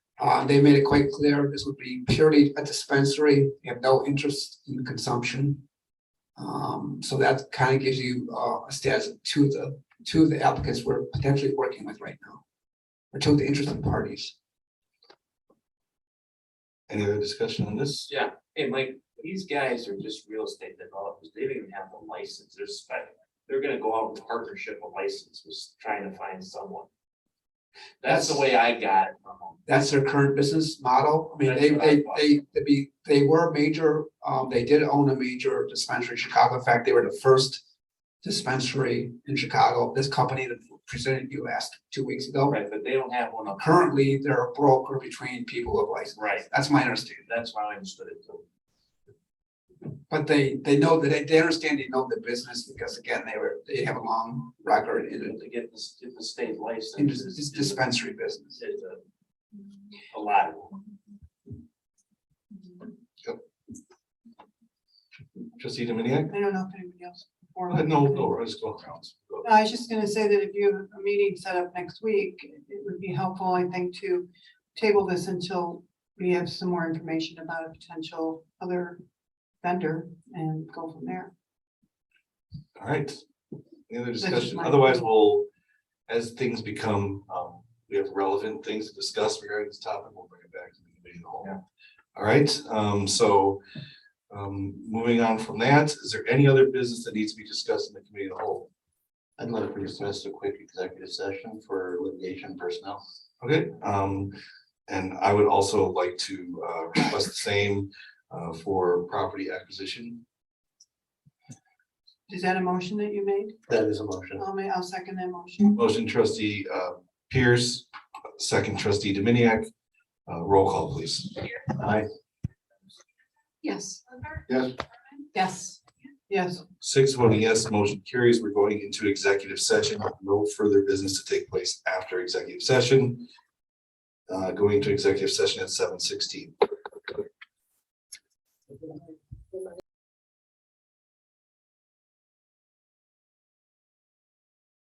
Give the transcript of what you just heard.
Uh, they made it quite clear this would be purely a dispensary. They have no interest in consumption. Um, so that kind of gives you uh, a status to the to the applicants we're potentially working with right now, or to the interested parties. Any other discussion on this? Yeah, and like, these guys are just real estate developers, they don't even have a license, they're spec- they're gonna go out in partnership, a license, was trying to find someone. That's the way I got um, it from them. That's their current business model. I mean, That's they what I they thought. they they be, they were a major, um, they did own a major dispensary in Chicago. In fact, they were the first dispensary in Chicago. This company that presented you asked two weeks ago. Right, but they don't have one up, currently they're a broker between people of license. right, That's my understanding. that's why I understood it too. But they, they know that, they, they understand, they know the business because again, they were, they have a long record in To get this, get the state the, in license. this- this dispensary business. is a- A lot of them. Trustee Dominiac? I don't know if anybody else. before Uh, me. No, no, I was going around. Go. No, I was just gonna say that if you have a meeting set up next week, it would be helpful, I think, to table this until we have some more information about a potential other vendor and go from there. All right. Any other just discussion? my- Otherwise, we'll, as things become, um, we have relevant things to discuss regarding this topic, we'll bring it back to the committee of the Yeah. whole. All right, um, so, um, moving on from that, is there any other business that needs to be discussed in the committee of the whole? I'd like to request a quick executive session for litigation personnel. Okay, um, and I would also like to, uh, request the same, uh, for property acquisition. Is that a motion that you made? That is a motion. I'll ma- I'll second that motion. Motion trustee, uh, Pierce, second trustee Dominiac, uh, roll call, please. Aye. Yes. Yes. Yes. Yes, Six voting yes, motion carries. We're going into executive session. No further business to take place after executive session. Uh, going into executive session at seven sixteen.